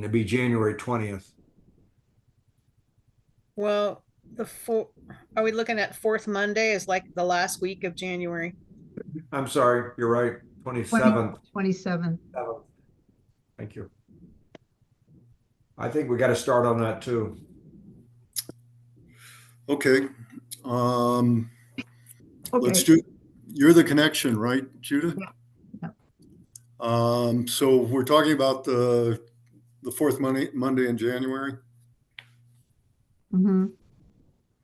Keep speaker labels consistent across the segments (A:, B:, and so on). A: it'd be January twentieth.
B: Well, the four, are we looking at fourth Monday is like the last week of January?
A: I'm sorry, you're right, twenty-seventh.
C: Twenty-seven.
A: Thank you. I think we gotta start on that too.
D: Okay, um, let's
C: Okay,
D: do, you're the connection, right, Judah?
C: Yeah, yeah.
D: Um, so we're talking about the, the fourth Monday, Monday in January?
C: mhm.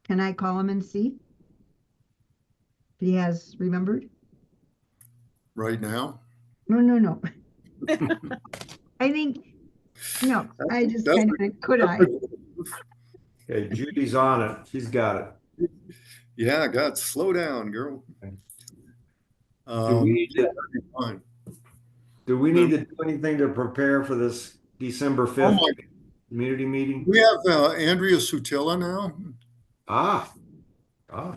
C: Can I call him and see? If he has remembered?
D: right now.
C: No, no, no. I think, no, I just
D: That's-
C: kind of, could I?
A: Okay, Judy's on it. She's got it.
D: Yeah, God, slow down, girl.
A: Okay. Do
D: Um,
A: we need to,
D: fine.
A: do we need to do anything to prepare for this December
D: Oh
A: fifth
D: my-
A: community meeting?
D: We have uh, Andrea Sutilla now.
A: Ah, ah,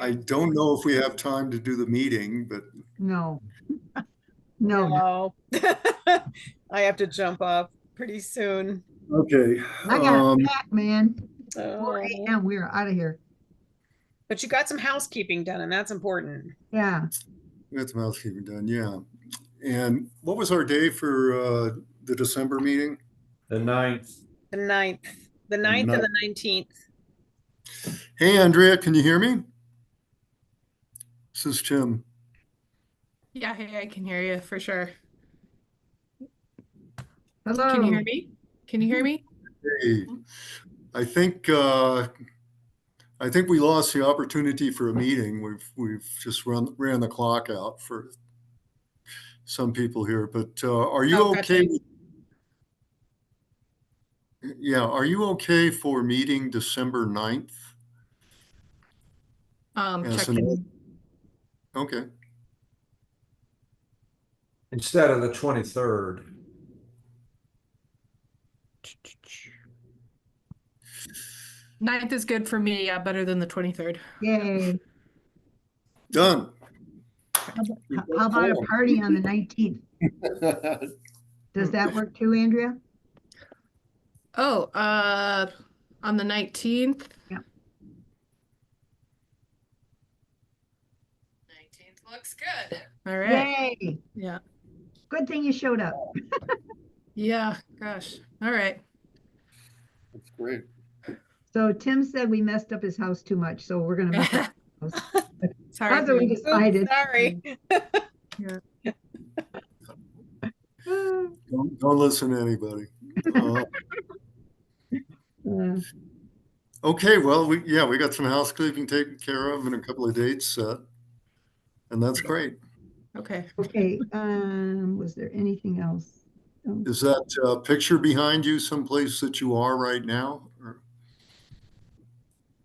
D: I don't know if we have time to do the meeting, but
C: No. No,
B: No. I have to jump off pretty soon.
D: okay.
C: I got
D: um,
C: a pack, man. Four
B: So,
C: AM, we are out of here.
B: Oh. but you got some housekeeping done and that's important.
C: Yeah,
D: That's mouthkeeping done, yeah. And what was our day for uh, the December meeting?
A: the ninth.
B: The ninth, the ninth and the nineteenth.
D: Hey, Andrea, can you hear me? This is Tim.
E: Yeah, hey, I can hear you for sure.
C: hello.
E: Can you hear me? Can you hear me?
D: Hey, I think, uh, I think we lost the opportunity for a meeting. We've, we've just run, ran the clock out for some people here, but uh, are you
B: Oh, gotcha.
D: okay? with- Yeah, are you okay for meeting December 9th?
E: Um,
D: Yeah, so
E: checking.
D: no- Okay,
A: Instead of the twenty-third.
E: Ninth is good for me. Yeah, better than the 23rd.
C: Yay.
D: done.
C: How about- How about a party on the nineteenth? Does that work too, Andrea?
E: Oh, uh, on the 19th.
C: Yeah.
E: 19th looks good. All right.
C: Yay,
E: Yeah.
C: good thing you showed up.
E: Yeah. Gosh. All right.
D: That's great.
C: So Tim said we messed up his house too much, so we're gonna. mess up his house.
E: Sorry.
C: That's what we
E: dude.
B: Oops,
C: decided.
B: Sorry.
C: Uh,
D: Don't, don't listen to anybody. Uh,
C: Uh,
D: Okay, well, we, yeah, we got some housekeeping taken care of and a couple of dates set. And that's great.
E: Okay.
C: Okay, um, was there anything else? Um,
D: Is that uh, picture behind you someplace that you are right now? Or-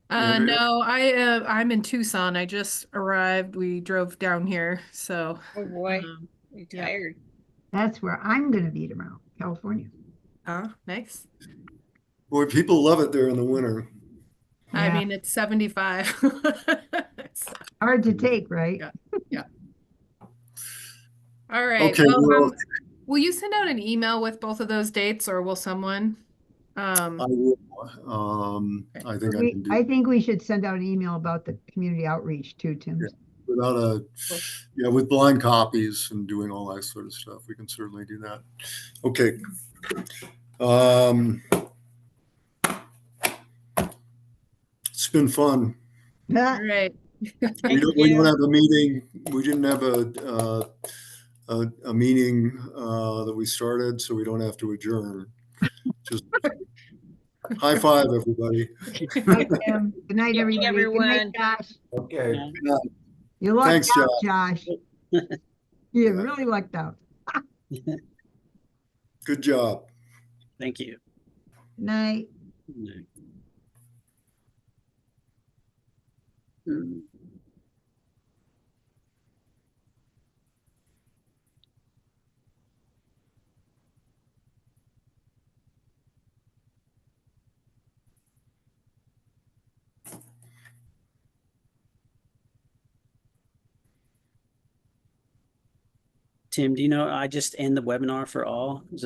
E: Uh,
D: Andrea?
E: no, I, uh, I'm in Tucson. I just arrived. We drove down here. So,
B: Oh, boy,
E: um,
B: I'm
E: yeah.
B: tired.
C: That's where I'm gonna be tomorrow, California.
E: uh, nice.
D: Boy, people love it there in the winter.
E: I
C: Yeah.
E: mean, it's 75. So-
C: Hard
D: Mm-hmm.
C: to take, right?
E: Yeah. All right.
D: Okay,
E: well,
D: well-
E: um, will you send out an email with both of those dates or will someone? Um,
D: I will, um, I think I
C: We-
D: can do,
C: I think we should send out an email about the community outreach too, Tim.
D: Yeah. without a, yeah, with blind copies and doing all that sort of stuff, we can certainly do that. Okay. Um, It's been fun.
C: Ah,
E: all right.
D: We
B: Thank
D: don't, we
B: you.
D: don't have a meeting, we didn't have a, uh, a, a meeting, uh, that we started, so we don't have to adjourn. Just High five, everybody.
C: Good night, Tim. Good night,
B: Good night,
C: everybody. Good night,
B: everyone.
C: Josh.
A: Okay.
C: You lucked
D: Thanks,
C: out, Josh. You really lucked out.
D: Good job.
F: Thank you.
C: Good Night.
F: Mm. Tim, do you know, I just end the webinar for all? Is